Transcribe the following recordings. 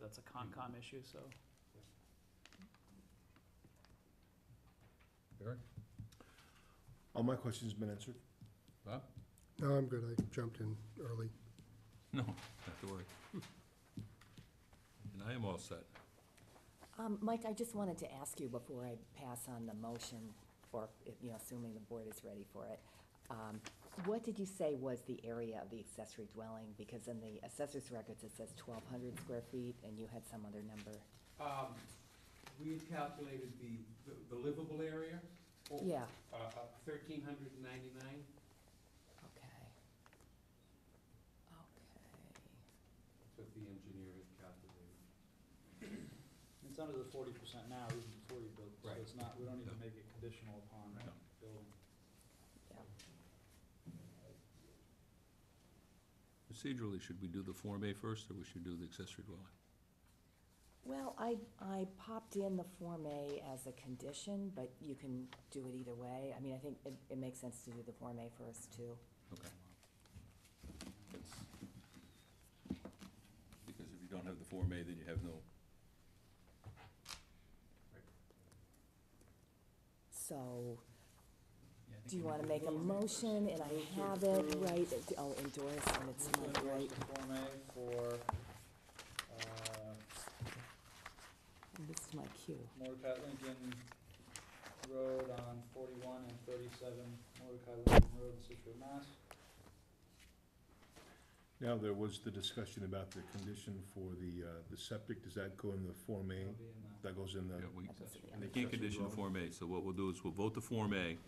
that's a Mm-hmm. Concom issue, so. Eric? All my questions have been answered. Bob? No, I'm good. I jumped in early. No, not to worry. And I am all set. Um, Mike, I just wanted to ask you before I pass on the motion, or, if, you know, assuming the board is ready for it. um, What did you say was the area of the accessory dwelling? Because in the assessor's records, it says twelve hundred square feet, and you had some other number. Um, we had calculated the, the- the livable area. or- Yeah, Uh, thirteen hundred and ninety-nine. okay. Okay. That's what the engineer had calculated. It's under the forty percent now, even before you build, so Right. it's not, we don't No. even make it conditional upon No. building. Procedurally, should we do the Form A first, or we should do the accessory dwelling? Well, I, I popped in the Form A as a condition, but you can do it either way. I mean, I think it, it makes sense to do the Form A first, too. Okay. Because if you don't have the Form A, then you have no, So, Yeah, I think Do you we wanna need make a Form A first. motion, and I Move to have it, approve- right, it- I'll endorse, and it's move to not endorse right, the Form A for, uh, and this is my cue. Mordecai Lincoln Road on forty-one and thirty-seven Mordecai Lincoln Road in Situate, Mass. Now, there was the discussion about the condition for the, uh, the septic, does that go in the Form That'll A? be in the- That goes in the, yeah, we, That doesn't- yeah. in the we can't condition the accessory dwelling? Form A, so what we'll do is we'll vote the Form A,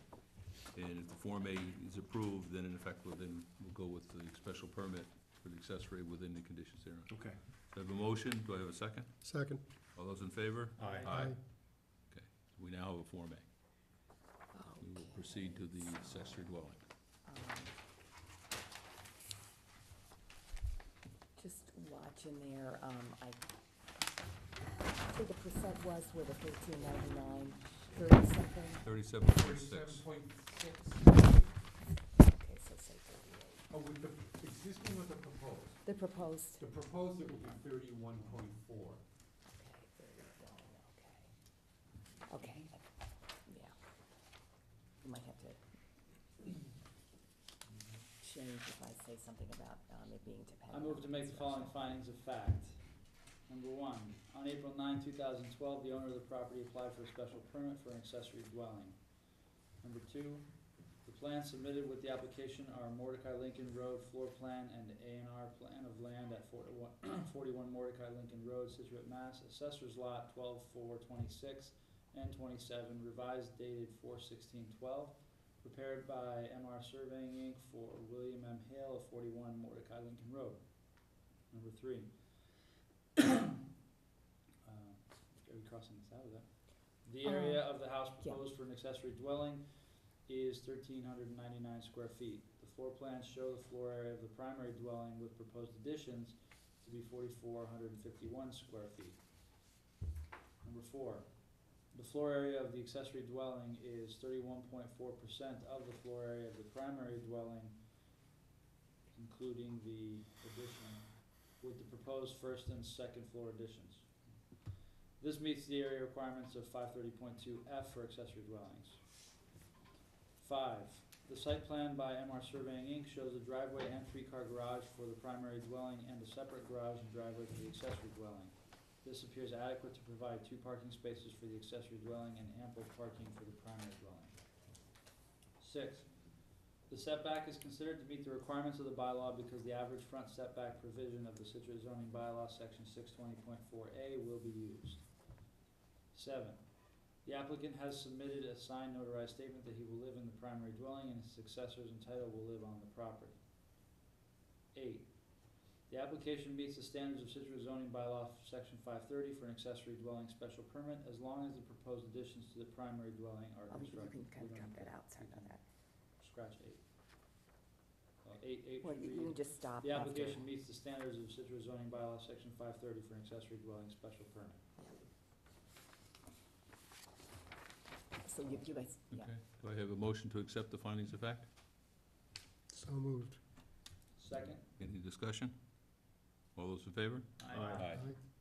and if the Form A is approved, then in effect, we'll then, we'll go with the special permit for the accessory within the conditions thereon. So Okay. I have a motion, do I have a second? Second. All those in favor? Aye. Okay, we now have a Form A. We will proceed to the accessory dwelling. Just watching there, um, I, I think the percent was with a thirteen ninety-nine, thirty something, Thirty-seven point Thirty-seven six. point six. okay, so say thirty-eight. Oh, with the existing with the proposed. The proposed, The proposed, it would be thirty-one point four. okay, thirty-one, okay. Okay, yeah. You might have to change if I say something about, um, it being I dependent. move to make the following findings of fact. Number one, on April 9, thousand twelve, the owner of the property applied for a special permit for an accessory dwelling. Number two, the plans submitted with the application are Mordecai Lincoln Road floor plan and A and R plan of land at 41 41 Mordecai Lincoln Road, Situate, Mass. Assessor's lot 12-4-26 and twenty-seven, revised dated 4-16-12, prepared by MR Surveying Inc. for William M. Hale of forty-one Mordecai Lincoln Road. Number three. Uh, Are we crossing this out of that? The Um, area of the house yeah. proposed for an accessory dwelling is thirteen hundred and ninety-nine square feet. The floor plans show the floor area of the primary dwelling with proposed additions to be forty-four hundred and fifty-one square feet. Number four, the floor area of the accessory dwelling is thirty-one point four percent of the floor area of the primary dwelling, including the addition, with the proposed first and second floor additions. This meets the area requirements of five thirty point two F for accessory dwellings. Five, the site plan by MR Surveying Inc. shows a driveway and three-car garage for the primary dwelling and a separate garage and driveway for the accessory dwelling. This appears adequate to provide two parking spaces for the accessory dwelling and ample parking for the primary dwelling. Six, the setback is considered to meet the requirements of the bylaw because the average front setback provision of the Situate zoning bylaw, section six twenty point four A, will be used. Seven, the applicant has submitted a signed notarized statement that he will live in the primary dwelling and his successors in title will live on the property. Eight, the application meets the standards of Situate zoning bylaw, section five thirty, for an accessory dwelling special permit as long as the proposed additions to the primary dwelling are Um, you constructed. can kind We of don't drop need that out, sorry about that. Scratch eight. Well, Uh, eight, eight Well, should you you can read, just stop after. the application meets the standards of Citrus zoning bylaw, section five thirty for an accessory dwelling special permit. So you, you guys, yeah. Okay, do I have a motion to accept the findings of fact? So moved. Second? Any discussion? All those in favor? Aye. Aye.